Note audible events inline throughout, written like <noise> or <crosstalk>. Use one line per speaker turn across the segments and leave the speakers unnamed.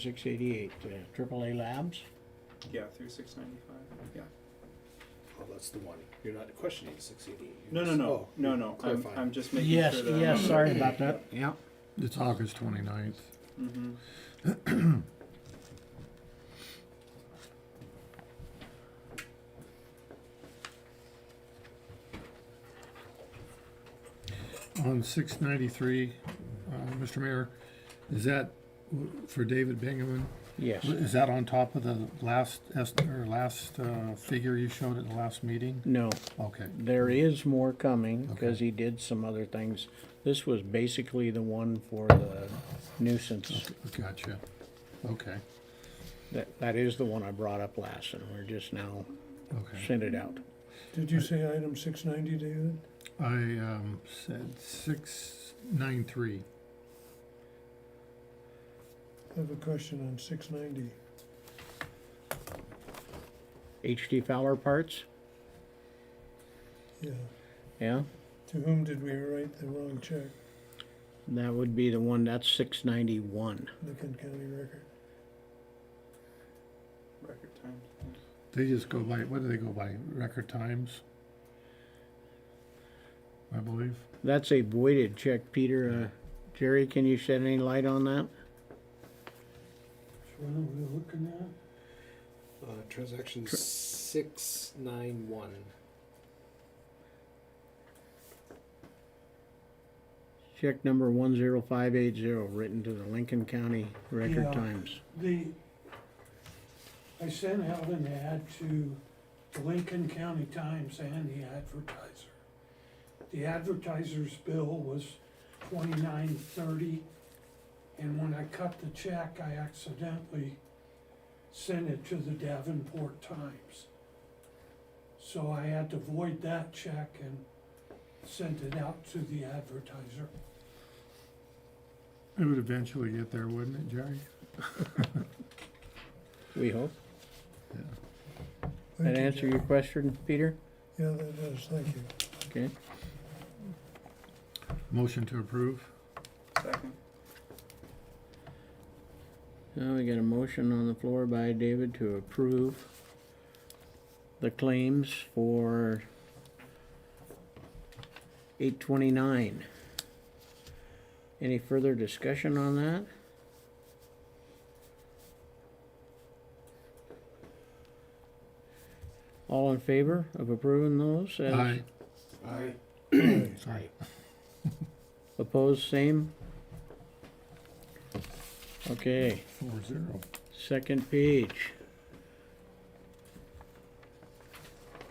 Six eighty-eight, AAA Labs.
Yeah, through six ninety-five, yeah.
Oh, that's the one. You're not questioning six eighty. Oh,
No, no, no, no, no, I'm,
Clarifying.
I'm just making
Yes,
sure that.
yes, sorry about that.
Yeah.
It's August 29th.
Mm-hmm,
On 693, uh, Mr. Mayor, is that w- for David Bingaman?
Yes.
Is that on top of the last, est- or last uh, figure you showed at the last meeting?
No,
Okay,
there is more coming because
Okay.
he did some other things. This was basically the one for the nuisance.
gotcha. Okay,
That, that is the one I brought up last and we're just now
okay.
sent it out.
Did you say item six ninety, David?
I um, said 693.
I have a question on six ninety.
HD Fowler Parts,
Yeah.
yeah?
To whom did we write the wrong check?
That would be the one, that's six ninety-one.
Lincoln County Record.
record time, yeah.
They just go by, what do they go by? Record times? I believe.
That's a voided check, Peter. Uh, Jerry, can you shed any light on that?
Uh, transaction six nine one.
Check number one zero five eight zero, written to the Lincoln County
Yeah.
Record Times.
The, I sent out an ad to the Lincoln County Times and the advertiser. The advertiser's bill was twenty-nine thirty, and when I cut the check, I accidentally sent it to the Davenport Times. So I had to void that check and sent it out to the advertiser.
It would eventually get there, wouldn't it, Jerry?
We hope.
Thank
That
you,
answer
Jeff.
your question, Peter?
Yeah, that does, thank you.
Okay.
Motion to approve?
second,
Now we got a motion on the floor by David to approve the claims for eight twenty-nine. Any further discussion on that? All in favor of approving those? as-
Aye.
Aye.
Sorry.
Opposed, same? Okay,
Four zero.
second page.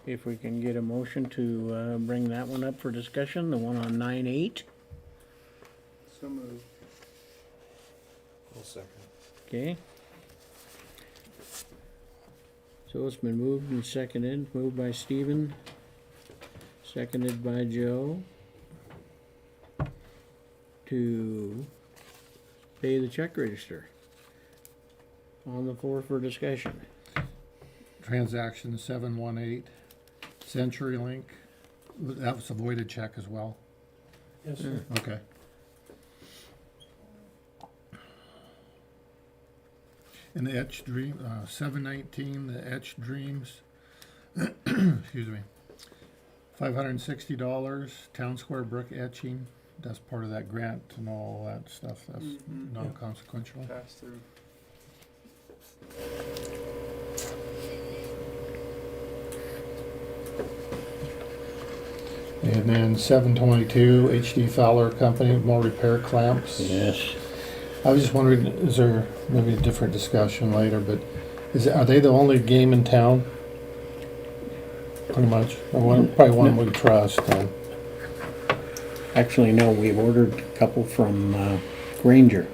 If we can get a motion to, uh, bring that one up for discussion, the one on nine eight,
so moved,
I'll second.
okay? So it's been moved and seconded, moved by Stephen, seconded by Joe. To pay the check register. On the floor for discussion.
Transaction seven one eight, CenturyLink, that was a voided check as well,
Yes, sir.
okay. And the Etch Dream, uh, seven nineteen, the Etch Dreams, <clears throat> excuse me, five hundred and sixty dollars, Town Square Brook etching, that's part of that grant and all that stuff, that's
Mhm.
non-consequential.
pass through,
And then seven twenty-two, HD Fowler Company, more repair clamps.
Yes.
I was just wondering, is there maybe a different discussion later, but is, are they the only game in town? Pretty much, Or one- probably one we trust, uh,
Actually, no, we ordered a couple from uh, Granger,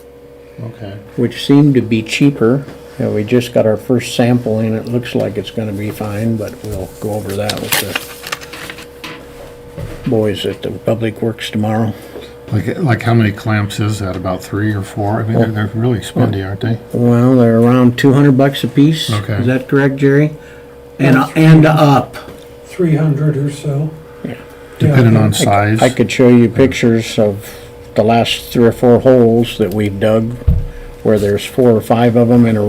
okay,
which seemed to be cheaper. Yeah, we just got our first sample in. It looks like it's gonna be fine, but we'll go over that with the boys at the Public Works tomorrow.
like, like how many clamps is that, about three or four, I mean, they're, they're really spendy, aren't they?
Well, they're around two hundred bucks a piece.
Okay.
Is that correct, Jerry? And, and up.
Three hundred or so.
Yeah.
Depending on
I-
size,
I could show you pictures of the last three or four holes that we dug where there's four or five of them in a